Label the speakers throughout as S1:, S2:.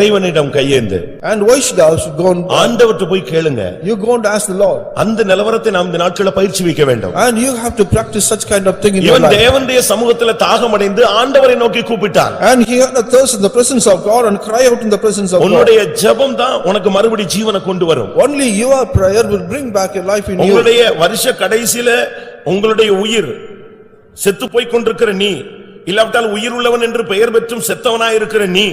S1: இறைவனிடம் கையேந்து
S2: And why should I should go and,
S1: ஆண்டவர்ட்ட போய் கேளுங்க
S2: you go and ask the Lord.
S1: அந்த நிலவரத்தை நாம் இந்த நாட்கள பயிற்சி வைக்க வேண்டும்
S2: And you have to practice such kind of thing in your
S1: இவன்
S2: life.
S1: தேவனுடைய சமூகத்துல தாகமடைந்து ஆண்டவரை நோக்கி கூப்பிட்டான்
S2: And he had a thirst in the presence of God and cry out in the presence of God.
S1: உன்னுடைய ஜெபம் தான் உனக்கு மறுபடி ஜீவனை கொண்டு வரும்
S2: Only your prayer will bring back your life in you.
S1: உங்களுடைய வருஷ கடைசியில உங்களுடைய உயிர் செத்துப் போய் கொண்டிருக்கிற நீ இல்லாவிட்டால் உயிர் உள்ளவன் என்று பெயர் பெற்றும் செத்தவனாயிருக்கிற நீ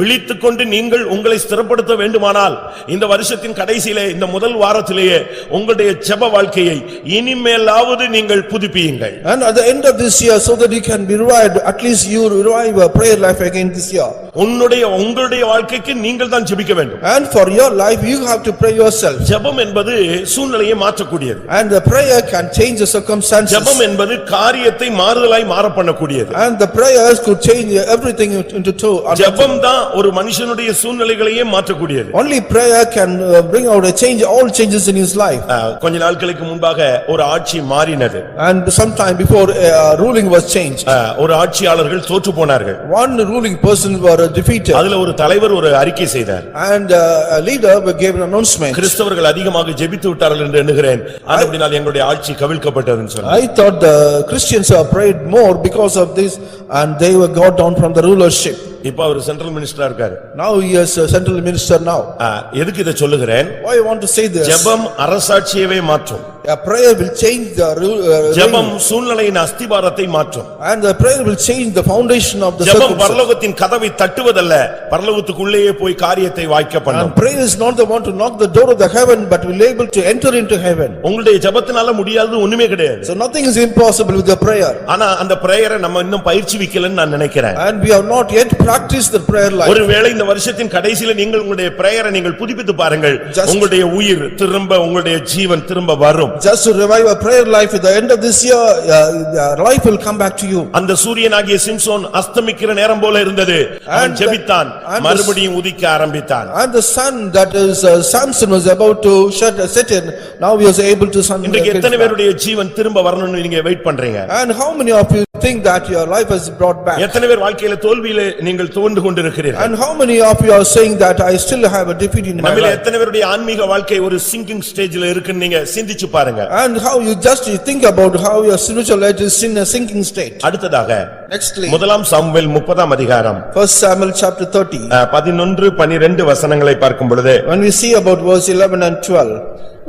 S1: விழித்துக் கொண்டு நீங்கள் உங்களை ஸ்திரப்படுத்த வேண்டுமானால் இந்த வருஷத்தின் கடைசியிலே இந்த முதல் வாரத்திலேயே உங்களுடைய ஜெப வாழ்க்கையை இனிமேலாவது நீங்கள் புதுப்பியுங்கள்
S2: And at the end of this year, so that you can be revived, at least you revive your prayer life again this year.
S1: உன்னுடைய உங்களுடைய வாழ்க்கைக்கு நீங்கள் தான் ஜெபிக்க வேண்டும்
S2: And for your life, you have to pray yourself.
S1: ஜெபம் என்பது சூழ்நிலையை மாற்றக்கூடியது
S2: And the prayer can change the circumstances.
S1: ஜெபம் என்பது காரியத்தை மாறுதலாய் மாறப் பண்ணக்கூடியது
S2: And the prayers could change everything into two.
S1: ஜெபம் தான் ஒரு மனுஷனுடைய சூழ்நிலைகளையே மாற்றக்கூடியது
S2: Only prayer can uh, bring out a change, all changes in his life.
S1: அஹ், கொஞ்ச நாட்களுக்கு முன்பாக ஒரு ஆட்சி மாறினது
S2: And sometime before uh, ruling was changed,
S1: அஹ், ஒரு ஆட்சியாளர்கள் தோற்று போனார்கள்
S2: one ruling person were defeated
S1: அதுல ஒரு தலைவர் ஒரு அறிக்கை செய்தார்
S2: and uh, a leader gave an announcement.
S1: கிறிஸ்தவர்கள் அதிகமாக ஜெபித்து விட்டார்கள் என்று எண்ணுகிறேன் அப்படினால் எங்களுடைய ஆட்சி கவிழ்க்கப்பட்டதுன்னு சொன்னார்
S2: I thought the Christians have prayed more because of this and they were got down from the rulership.
S1: இப்ப அவர் சென்ட்ரல் மினிஸ்டரா இருக்காரு
S2: Now he is a central minister now.
S1: அஹ், எதுக்கு இதை சொல்லுகிறேன்
S2: Why I want to say this?
S1: ஜெபம் அரசாட்சியவே மாற்றும்
S2: A prayer will change the rule. uh,
S1: ஜெபம் சூழ்நிலையின் அஸ்திபாரத்தை மாற்றும்
S2: And the prayer will change the foundation of the
S1: ஜெபம்
S2: circumstances.
S1: பரலோகத்தின் கதவை தட்டுவதல்ல பரலோகத்துக்குள்ளேயே போய் காரியத்தை வாய்க்க பண்ணும்
S2: And prayer is not the one to knock the door of the heaven, but will able to enter into heaven.
S1: உங்களுடைய ஜெபத்தினால முடியாதது ஒண்ணுமே கிடையாது
S2: So nothing is impossible with the prayer.
S1: ஆனா அந்த பிரேயரை நம்ம இன்னும் பயிற்சி வைக்கலன்னு நான் நினைக்கிறேன்
S2: And we have not yet practiced the prayer life.
S1: ஒருவேளை இந்த வருஷத்தின் கடைசியில நீங்கள் உங்களுடைய பிரேயரை நீங்கள் புதுப்பித்து பாருங்கள்
S2: Just-
S1: உங்களுடைய உயிர் திரும்ப உங்களுடைய ஜீவன் திரும்ப வரும்
S2: Just to revive a prayer life, at the end of this year, uh, uh, life will come back to you.
S1: அந்த சூரியனாகிய சிம்சோன் அஸ்தமிக்கிற நேரம் போல இருந்தது அவன்
S2: And-
S1: ஜெபித்தான்
S2: and-
S1: மறுபடியும் உதிக்க ஆரம்பித்தான்
S2: And the sun that is uh, Samson was about to shut, set in, now he was able to sun.
S1: இன்றைக்கு எத்தனை பேருடைய ஜீவன் திரும்ப வரணும்னு நீங்க வெயிட் பண்றீங்க
S2: And how many of you think that your life has brought back?
S1: எத்தனை பேர் வாழ்க்கையில தோல்வியில நீங்கள் துவண்டு கொண்டிருக்கிறீர்கள்
S2: And how many of you are saying that I still have a defeat in my
S1: நம்மில
S2: life?
S1: எத்தனை பேருடைய ஆன்மீக வாழ்க்கை ஒரு சிங்கிங் ஸ்டேஜ்ல இருக்குன்னு நீங்க சிந்திச்சு பாருங்க
S2: And how you just you think about how your spiritual life is in a sinking state.
S1: அடுத்ததாக
S2: Nextly,
S1: முதலாம் சாமுவேல் முப்பதாம் அதிகாரம்
S2: first Samuel chapter thirty,
S1: அஹ், பதினொன்று பனிரெண்டு வசனங்களை பார்க்கும் பொழுது
S2: when we see about verse eleven and twelve.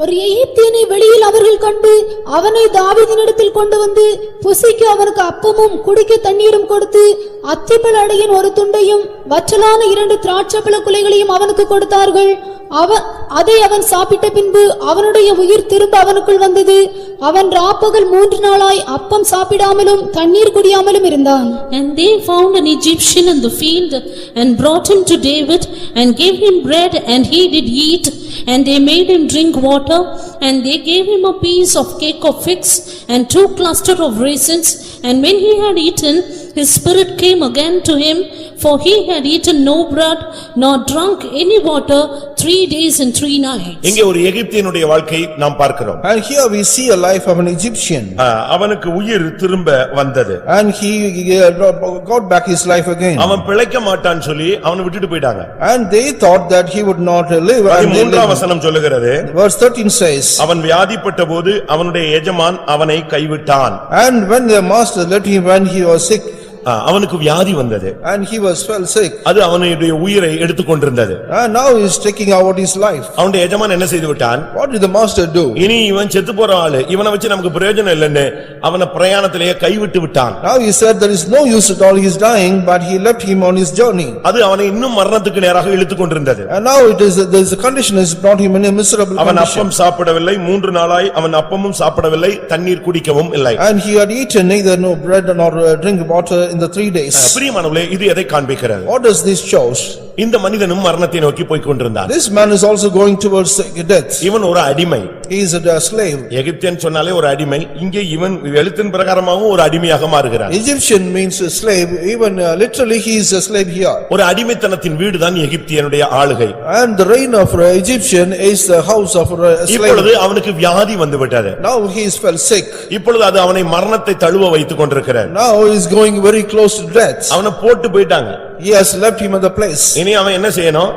S3: ஒரு எகிப்தியனை வெளியில் அவர்கள் கண்டு அவனை தாவீதினிடத்தில் கொண்டு வந்து புசிக்கு அவனுக்கு அப்பமும் குடிக்க தண்ணீரும் கொடுத்து அத்திப்பழ அடையின் ஒரு துண்டையும் வற்றலான இரண்டு திராட்சைப்பழ குலைகளையும் அவனுக்கு கொடுத்தார்கள் அவ அதை அவன் சாப்பிட்ட பின்பு அவனுடைய உயிர் திரும்ப அவனுக்குள் வந்தது அவன் ராப்பகல் மூன்று நாளாய் அப்பம் சாப்பிடாமலும் தண்ணீர் குடியாமலும் இருந்தான்
S4: And they found an Egyptian in the field and brought him to David and gave him bread and he did eat and they made him drink water and they gave him a piece of cake of figs and two cluster of raisins and when he had eaten his spirit came again to him for he had eaten no bread nor drunk any water three days and three nights.
S1: இங்கே ஒரு எகிப்தியனுடைய வாழ்க்கை நாம் பார்க்கிறோம்
S2: And here we see a life of an Egyptian,
S1: அஹ், அவனுக்கு உயிர் திரும்ப வந்தது
S2: and he uh, got back his life again.
S1: அவன் பிழைக்க மாட்டான்னு சொல்லி அவனை விட்டுட்டு போயிட்டாங்க
S2: And they thought that he would not live. and they
S1: மூன்றாம்
S2: lived.
S1: வசனம் சொல்லுகிறது
S2: Verse thirteen says,
S1: அவன் வியாதிப்பட்ட போது அவனுடைய எஜமான் அவனை கைவிட்டான்
S2: And when the master let him when he was sick,
S1: அஹ், அவனுக்கு வியாதி வந்தது
S2: and he was fell sick,
S1: அது அவனுடைய உயிரை எடுத்துக்கொண்டிருந்தது
S2: and now he is taking out his life.
S1: அவனுடைய எஜமான் என்ன செய்து விட்டான்
S2: What did the master do?
S1: இனி இவன் செத்து போற ஆளு இவனை வச்சு நமக்கு பிரயோஜனம் இல்லைன்னு அவனை பிரயாணத்திலேயே கைவிட்டு விட்டான்
S2: Now he said there is no use at all, he is dying, but he left him on his journey.
S1: அது அவனை இன்னும் மரணத்துக்கு நேராக இழுத்துக் கொண்டிருந்தது
S2: And now it is, there is a condition has brought him in a miserable
S1: அவன்
S2: condition.
S1: அப்பம் சாப்பிடவில்லை மூன்று நாளாய் அவன் அப்பமும் சாப்பிடவில்லை தண்ணீர் குடிக்கவும் இல்லை
S2: And he had eaten neither no bread nor uh, drink water in the three days.
S1: பிரியமானவர்களே இது எதை காண்பிக்கிறது
S2: What does this shows?
S1: இந்த மனிதனும் மரணத்தை நோக்கி போய்க் கொண்டிருந்தான்
S2: This man is also going towards death.
S1: இவன் ஒரு அடிமை
S2: He is a slave.
S1: எகிப்தியன் சொன்னாலே ஒரு அடிமை இங்கே இவன் எழுத்தின் பிரகாரமாகவும் ஒரு அடிமையாக மாறுகிறான்
S2: Egyptian means a slave, even uh, literally he is a slave here.
S1: ஒரு அடிமைத்தனத்தின் வீடுதான் எகிப்தியனுடைய ஆளுகை
S2: And the reign of uh, Egyptian is the house of a
S1: இப்பொழுது
S2: slave.
S1: அவனுக்கு வியாதி வந்து விட்டது
S2: Now he is fell sick.
S1: இப்பொழுது அது அவனை மரணத்தை தழுவ வைத்துக் கொண்டிருக்கிறது
S2: Now he is going very close to death.
S1: அவனை போட்டு போயிட்டாங்க
S5: He has left him at the place.
S2: இனி அவன் என்ன செய்யணும்